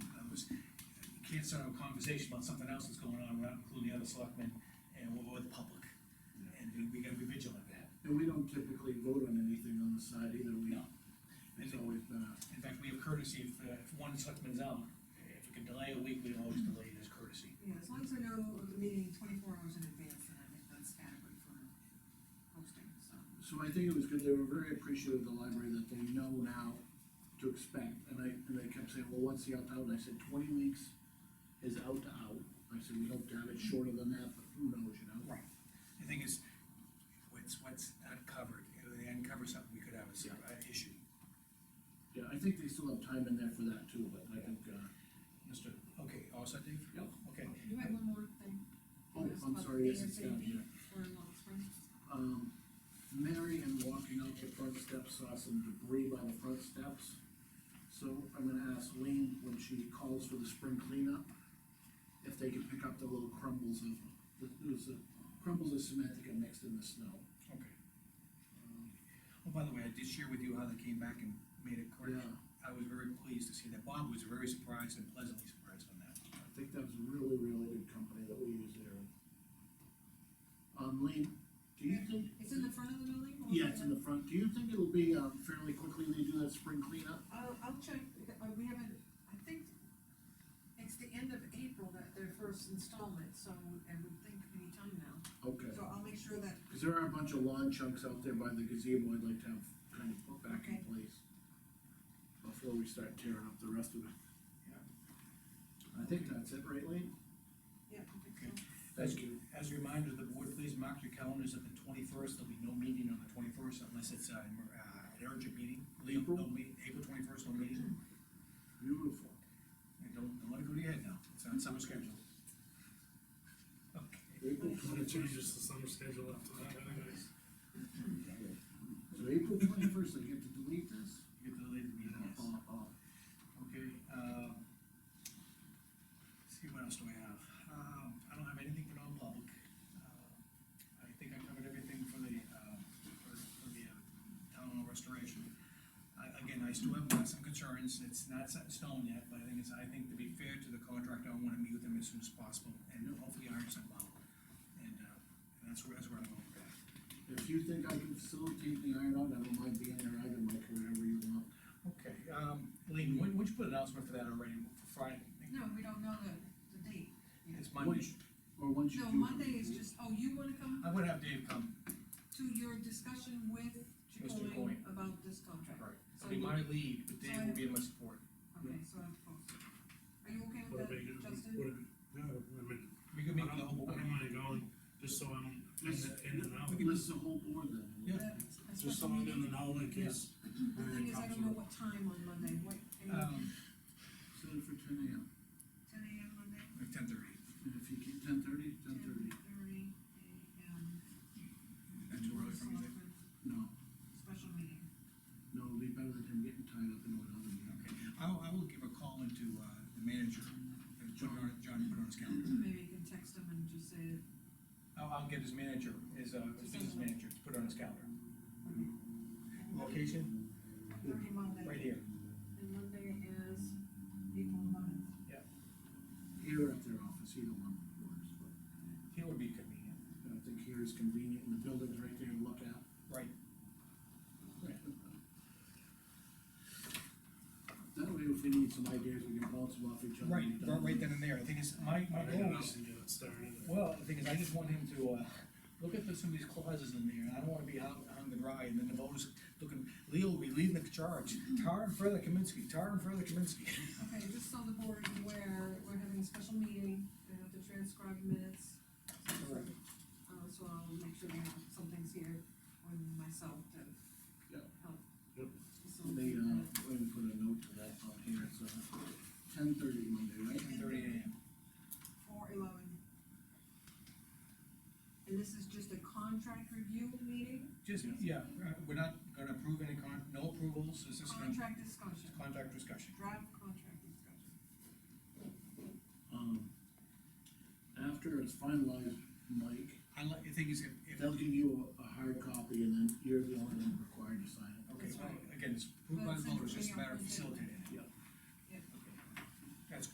can't start a conversation about something else that's going on, without including the other selectmen, and we're with the public. And we gotta be vigilant of that. And we don't typically vote on anything on the side either, we, No. it's always been a, In fact, we have courtesy, if, uh, if one selectman's out, if we can delay a week, we always delay it as courtesy. Yeah, as long as I know the meeting twenty-four hours in advance, then I think that's adequate for hosting, so. so I think it was good, they were very appreciative of the library that they know now to expect, and I, and they kept saying, well, what's the out out, and I said, twenty weeks is out to out. I said, we hope to have it shorter than that, but who knows, you know? Right. The thing is, what's, what's uncovered, if they uncover something, we could have a, sur- uh, issue. Yeah, I think they still have time in there for that too, but I think, uh, Mister, okay, all set, Dave? Yep. Okay, You had one more thing. oh, I'm sorry, yes, it's down here. For Long Spring. um, Mary and walking up the front steps saw some debris by the front steps. So I'm gonna ask Lean, when she calls for the spring cleanup, if they can pick up the little crumbles of, the, it was the crumbles of cement that get mixed in the snow. okay. Um, Well, by the way, I did share with you how they came back and made it correct. Yeah, I was very pleased to see that. Bob was very surprised and pleasantly surprised on that. I think that was a really, really good company that we use there. Um, Lean, do you think? It's in the front of the building? or Yeah, it's in the front. Do you think it'll be, um, fairly quickly they do that spring cleanup? I'll, I'll check, uh, we haven't, I think it's the end of April that their first installment, so I would think any time now. Okay. So I'll make sure that, Cause there are a bunch of lawn chunks out there by the gazebo I'd like to have kind of put back in Okay. place. Before we start tearing up the rest of it. Yeah. I think that's it, right, Lee? yeah, I think so. Thank you. As a reminder, the board, please mark your calendars at the twenty-first. There'll be no meeting on the twenty-first unless it's, uh, emer- uh, an urgent meeting. Leave no April? meet- April twenty-first, no meeting. Beautiful. And don't, don't let it go to your head now. It's on summer schedule. Okay. April I'm gonna change twenty-first. just the summer schedule up to that, anyways. So April twenty-first, I get to delete this? You get the later meeting, yes. Oh, oh. Okay, um, let's see, what else do I have? Um, I don't have anything for non-public. Uh, I think I covered everything for the, uh, for, for the, uh, town hall restoration. I, again, I still have uh, some concerns, it's not set in stone yet, but I think it's, I think to be fair to the contractor, I wanna meet with them as soon as possible, and hopefully iron something out. And, uh, and that's where, that's where I'm going with that. If you think I can facilitate the iron out, I don't mind being there, I can make whatever you want. Okay, um, Lean, when, would you put an announcement for that already, for Friday? No, we don't know the, the date. It's Monday, Or once you No, do. Monday is just, oh, you wanna come I would have Dave come to your discussion with Mr. Chicoine Chicoine. about this contract? Right, it'll be my lead, but Dave will be in my support. Okay, so I'm supposed to. Are you okay with Whatever that, you, Justin? whatever, no, I mean, We can I meet don't, the whole I board. don't mind going, just so I'm in the, in and out. We can list the whole board then. Yeah. A Just so special I'm meeting? in and out in case. The thing is, I don't know what time on Monday, what, ten Um, Set it for ten AM, AM Monday? ten thirty, and if you keep ten thirty, ten thirty, 10:30 AM. that's too early for me, Dave. no, Special meeting. no, it'll be better than him getting tied up into another meeting. Okay, I will, I will give a call into, uh, the manager, uh, John, John, put on his calendar. Maybe you can text him and just say, I'll, I'll get his manager, his, uh, his business manager, to put on his calendar. Location, thirty Monday. right here. And Monday is April eleventh. Here at their office, either one works, but uh, Here would be convenient. I think here is convenient, and the building's right there to look at. Right. That way, if we need some ideas, we can bounce them off each other. Right, right, right then and there. The thing is, my, my I don't goal know, is, and get it started. well, the thing is, I just want him to, uh, look at the- some of these clauses in there. I don't wanna be out on the dry and then the voters looking, Leo will be leading the charge. Tar and further Kaminsky, tar and further Kaminsky. Okay, just so the board is aware, we're having a special meeting, we have to transcribe minutes. Correct. Uh, so I'll make sure that something's here on myself to Yep. help. They, Yep. facilitate uh, that. we're gonna put a note to that on here, so ten thirty Monday, right? Ten thirty AM. Four eleven. And this is just a contract review meeting, Just, yeah, uh, we're not gonna approve any con, no approvals, this is gonna, contract discussion, contract discussion. draft contract discussion. Um, after it's finalized, Mike, I like, the thing is, if, if, they'll give you a, a hard copy, and then you're the only one required to sign it. okay, well, again, it's approved by the voters, just a matter of facilitating.